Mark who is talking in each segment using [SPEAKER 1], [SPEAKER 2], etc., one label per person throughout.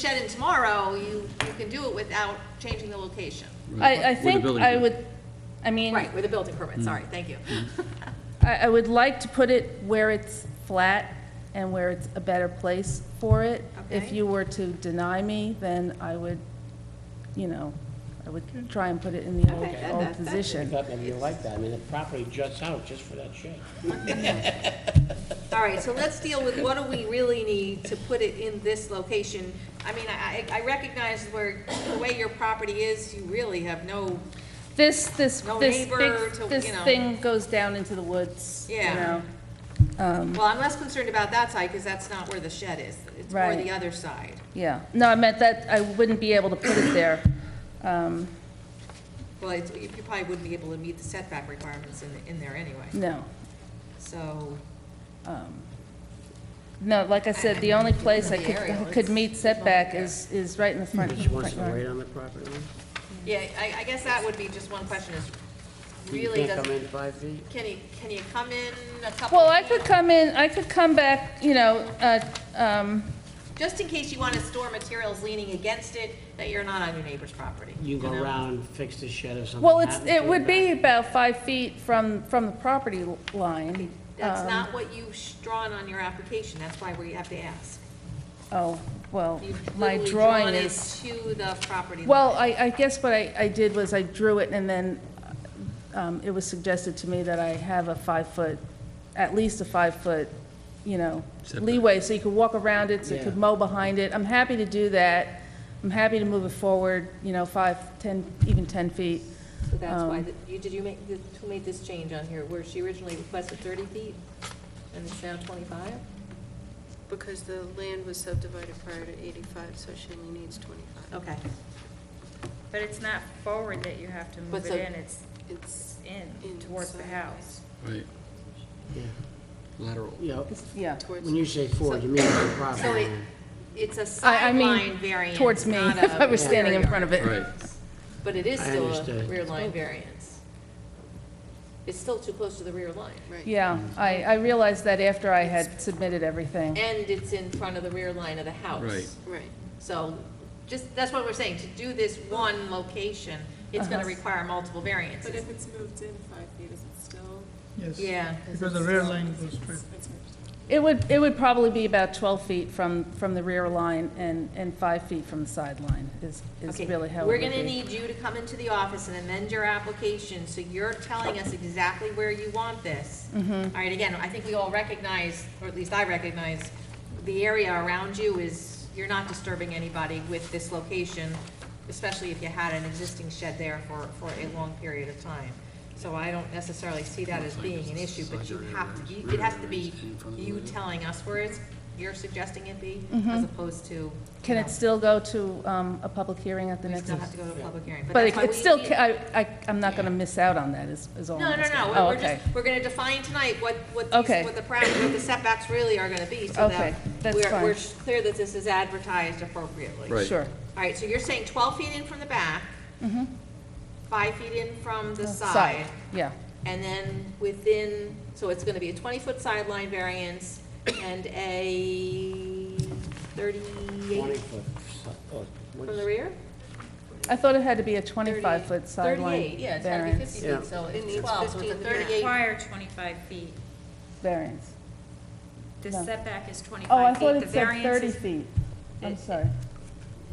[SPEAKER 1] shed in tomorrow, you, you can do it without changing the location.
[SPEAKER 2] I,
[SPEAKER 3] Mm.
[SPEAKER 2] I
[SPEAKER 3] With the
[SPEAKER 2] think
[SPEAKER 3] building
[SPEAKER 2] I
[SPEAKER 3] permit.
[SPEAKER 2] would, I mean,
[SPEAKER 1] Right, with a building
[SPEAKER 2] Mm.
[SPEAKER 1] permit, sorry, thank you.
[SPEAKER 2] Mm-hmm. I, I would like to put it where it's flat and where it's a better place for it. If
[SPEAKER 1] Okay.
[SPEAKER 2] you were to deny me, then I would, you know, I would try and put it in the
[SPEAKER 1] Okay, that-
[SPEAKER 2] old, old
[SPEAKER 1] that- that's-
[SPEAKER 2] position.
[SPEAKER 4] Putnam, you like that, I mean, the property juts out just for that shed.
[SPEAKER 1] All right, so let's deal with what do we really need to put it in this location? I mean, I, I I recognize where, the way your property is, you really have no,
[SPEAKER 2] This, this,
[SPEAKER 1] No
[SPEAKER 2] this
[SPEAKER 1] neighbor to,
[SPEAKER 2] big, this
[SPEAKER 1] you know.
[SPEAKER 2] thing goes down into the woods, you
[SPEAKER 1] Yeah.
[SPEAKER 2] know?
[SPEAKER 1] well, I'm less concerned about that side, because that's not where the shed is. It's more the
[SPEAKER 2] Right.
[SPEAKER 1] other side.
[SPEAKER 2] Yeah, no, I meant that I wouldn't be able to put it there. Um,
[SPEAKER 1] Well, it's, you probably wouldn't be able to meet the setback requirements in, in there anyway,
[SPEAKER 2] no.
[SPEAKER 1] so.
[SPEAKER 2] No, like I said, the only place I
[SPEAKER 1] The
[SPEAKER 2] could,
[SPEAKER 1] aerial,
[SPEAKER 2] could meet setback
[SPEAKER 1] there.
[SPEAKER 2] is, is right in the front.
[SPEAKER 4] She wants to
[SPEAKER 2] front
[SPEAKER 4] wait
[SPEAKER 2] yard.
[SPEAKER 4] on the property line?
[SPEAKER 1] Yeah, I, I guess that would be just one question is,
[SPEAKER 4] You
[SPEAKER 1] really,
[SPEAKER 4] can't
[SPEAKER 1] does,
[SPEAKER 4] come in five feet?
[SPEAKER 1] can you, can you come in a couple?
[SPEAKER 2] Well, I
[SPEAKER 1] feet?
[SPEAKER 2] could come in, I could come back, you know, uh, um,
[SPEAKER 1] Just in case you want to store materials leaning against it, that you're not on your neighbor's property.
[SPEAKER 4] You can go
[SPEAKER 1] know?
[SPEAKER 4] around, fix the shed or something.
[SPEAKER 2] well, it's,
[SPEAKER 4] happens to
[SPEAKER 2] it would be about five feet from, from the property l- line.
[SPEAKER 1] That's
[SPEAKER 2] Um,
[SPEAKER 1] not what you've sh- drawn on your application, that's why we have to ask.
[SPEAKER 2] Oh, well,
[SPEAKER 1] You've
[SPEAKER 2] my
[SPEAKER 1] literally
[SPEAKER 2] drawing
[SPEAKER 1] drawn it
[SPEAKER 2] is,
[SPEAKER 1] To the property.
[SPEAKER 2] well,
[SPEAKER 1] line.
[SPEAKER 2] I, I guess what I, I did was I drew it and then, um, it was suggested to me that I have a five-foot, at least a five-foot, you know,
[SPEAKER 3] Setback.
[SPEAKER 2] leeway, so you could walk around it, so you could
[SPEAKER 4] Yeah.
[SPEAKER 2] mow behind it. I'm happy to do that. I'm happy to move it forward, you know, five, ten, even ten feet.
[SPEAKER 1] So that's why,
[SPEAKER 2] um,
[SPEAKER 1] the- you, did you make, the- who made this change on here, where she originally requested thirty feet, and it's now twenty-five?
[SPEAKER 5] Because the land was subdivided prior to 85, so she only needs 25.
[SPEAKER 1] Okay,
[SPEAKER 6] But it's not forward that you have to
[SPEAKER 1] But
[SPEAKER 6] move it
[SPEAKER 1] so-
[SPEAKER 6] in, it's,
[SPEAKER 5] It's,
[SPEAKER 6] it's in, towards the
[SPEAKER 5] Inside.
[SPEAKER 6] house.
[SPEAKER 3] Right,
[SPEAKER 4] Yeah.
[SPEAKER 3] lateral.
[SPEAKER 4] You know,
[SPEAKER 2] Yeah.
[SPEAKER 5] towards,
[SPEAKER 4] when you say forward, you mean the property
[SPEAKER 1] so it,
[SPEAKER 4] line.
[SPEAKER 1] it's a
[SPEAKER 2] I, I
[SPEAKER 1] sideline
[SPEAKER 2] mean,
[SPEAKER 1] variance.
[SPEAKER 2] towards me,
[SPEAKER 1] not a
[SPEAKER 2] if I was
[SPEAKER 1] rear
[SPEAKER 2] standing in
[SPEAKER 1] yard.
[SPEAKER 2] front of it.
[SPEAKER 3] Right,
[SPEAKER 1] But it is
[SPEAKER 4] I
[SPEAKER 1] still a
[SPEAKER 4] understood.
[SPEAKER 1] rear line variance. It's still too close to the rear line.
[SPEAKER 5] right.
[SPEAKER 2] Yeah, I, I realized that after I had submitted everything.
[SPEAKER 1] And it's in front of the rear line of the house.
[SPEAKER 3] Right.
[SPEAKER 5] Right.
[SPEAKER 1] So just, that's what we're saying, to do this one location, it's gonna
[SPEAKER 2] Uh-huh.
[SPEAKER 1] require multiple
[SPEAKER 5] But
[SPEAKER 1] variances.
[SPEAKER 5] if it's moved in five feet, is it still?
[SPEAKER 7] Yes.
[SPEAKER 1] Yeah.
[SPEAKER 7] Because the rear line goes straight.
[SPEAKER 5] it's moved.
[SPEAKER 2] It would, it would probably be about 12 feet from, from the rear line and, and five feet from the sideline is, is
[SPEAKER 1] Okay,
[SPEAKER 2] really how it
[SPEAKER 1] We're
[SPEAKER 2] would
[SPEAKER 1] gonna
[SPEAKER 2] be.
[SPEAKER 1] need you to come into the office and amend your application, so you're telling us exactly where you want this.
[SPEAKER 2] Mm-hmm.
[SPEAKER 1] All right, again, I think we all recognize, or at least I recognize, the area around you is, you're not disturbing anybody with this location, especially if you had an existing shed there for, for a long period of time. So I don't necessarily see that as being an issue, but you have to, you- it has to be you telling us where it's, you're suggesting it be, as opposed to. you
[SPEAKER 2] Mm-hmm. Can
[SPEAKER 1] know,
[SPEAKER 2] it still go to um, a public hearing at the
[SPEAKER 1] we
[SPEAKER 2] next?
[SPEAKER 1] still have to go to a public hearing, but
[SPEAKER 2] But
[SPEAKER 1] that's
[SPEAKER 2] it-
[SPEAKER 1] why
[SPEAKER 2] it's
[SPEAKER 1] we
[SPEAKER 2] still,
[SPEAKER 1] need-
[SPEAKER 2] ca- I, I- I'm not going to miss out on that is, is all
[SPEAKER 1] No,
[SPEAKER 2] I'm
[SPEAKER 1] no,
[SPEAKER 2] asking.
[SPEAKER 1] no,
[SPEAKER 2] Oh,
[SPEAKER 1] we're- we're
[SPEAKER 2] okay.
[SPEAKER 1] just, we're gonna define tonight what, what
[SPEAKER 2] Okay.
[SPEAKER 1] these, what the parameters, what the setbacks really are gonna be, so that
[SPEAKER 2] Okay, that's
[SPEAKER 1] we're,
[SPEAKER 2] fine.
[SPEAKER 1] we're clear that this is advertised appropriately.
[SPEAKER 3] Right.
[SPEAKER 2] Sure,
[SPEAKER 1] All right, so you're saying twelve feet in from the back, five feet in from the
[SPEAKER 2] Mm-hmm. side,
[SPEAKER 1] side,
[SPEAKER 2] yeah,
[SPEAKER 1] and then within, so it's gonna be a twenty-foot sideline variance and a
[SPEAKER 4] Twenty
[SPEAKER 1] thirty-eight
[SPEAKER 4] foot. so- oh,
[SPEAKER 1] from the
[SPEAKER 4] what's-
[SPEAKER 1] rear?
[SPEAKER 2] I thought it had to be a
[SPEAKER 5] 38,
[SPEAKER 2] 25-foot
[SPEAKER 1] Thirty-eight,
[SPEAKER 2] sideline
[SPEAKER 1] yeah, it's gotta be
[SPEAKER 2] variance,
[SPEAKER 1] fifty
[SPEAKER 4] Yeah.
[SPEAKER 1] feet, so
[SPEAKER 5] It
[SPEAKER 1] it's
[SPEAKER 5] needs
[SPEAKER 1] twelve, so it's a
[SPEAKER 5] 15 to match.
[SPEAKER 1] thirty-eight
[SPEAKER 6] Require 25 feet.
[SPEAKER 2] variance.
[SPEAKER 6] The
[SPEAKER 2] No.
[SPEAKER 6] setback is
[SPEAKER 2] Oh, I
[SPEAKER 6] 25 feet.
[SPEAKER 2] thought
[SPEAKER 6] The
[SPEAKER 2] it said
[SPEAKER 6] variance
[SPEAKER 2] 30
[SPEAKER 6] is,
[SPEAKER 2] feet. I'm
[SPEAKER 6] it-
[SPEAKER 2] sorry.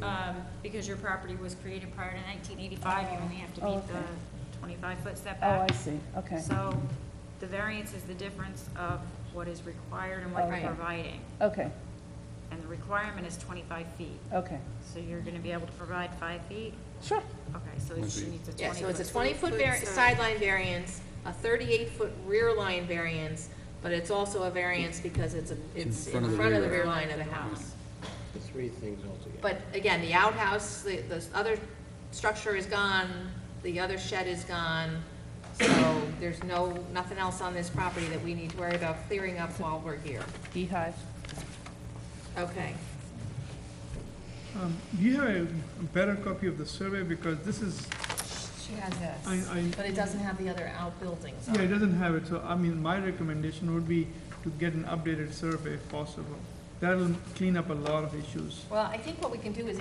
[SPEAKER 6] um, Because your property was created prior to 1985, you only have to
[SPEAKER 2] Oh,
[SPEAKER 6] meet
[SPEAKER 2] okay.
[SPEAKER 6] the 25-foot
[SPEAKER 1] uh,
[SPEAKER 2] Oh, I
[SPEAKER 6] setback.
[SPEAKER 2] see, okay,
[SPEAKER 6] So the variance is the difference of what is required and what
[SPEAKER 2] Okay.
[SPEAKER 6] you're providing.
[SPEAKER 2] okay,
[SPEAKER 6] And the requirement is 25 feet.
[SPEAKER 2] okay,
[SPEAKER 6] So you're going to be able to provide five feet?
[SPEAKER 2] sure.
[SPEAKER 6] Okay, so
[SPEAKER 3] One
[SPEAKER 6] she
[SPEAKER 3] feet.
[SPEAKER 6] needs a 20
[SPEAKER 1] Yeah, so it's a
[SPEAKER 6] foot.
[SPEAKER 1] twenty-foot
[SPEAKER 5] 20-foot
[SPEAKER 1] vari-
[SPEAKER 5] side.
[SPEAKER 1] sideline variance, a thirty-eight-foot rear line variance, but it's also a variance because it's, a- it's in front of the rear line of the house.
[SPEAKER 4] The three things altogether.
[SPEAKER 1] But again, the outhouse, the, the other structure is gone, the other shed is gone, so there's no, nothing else on this property that we need to worry about clearing up while we're here.
[SPEAKER 2] Beehive.
[SPEAKER 1] Okay.
[SPEAKER 7] Um, Do you have a better copy of the survey? Because this is,
[SPEAKER 1] She has
[SPEAKER 7] I,
[SPEAKER 1] this,
[SPEAKER 7] I,
[SPEAKER 1] but it doesn't have the other outbuildings
[SPEAKER 7] yeah, it doesn't have it, so, I mean, my recommendation would be to get an updated survey if possible.
[SPEAKER 8] That'll clean up a lot of issues.
[SPEAKER 7] Well, I think what we can do is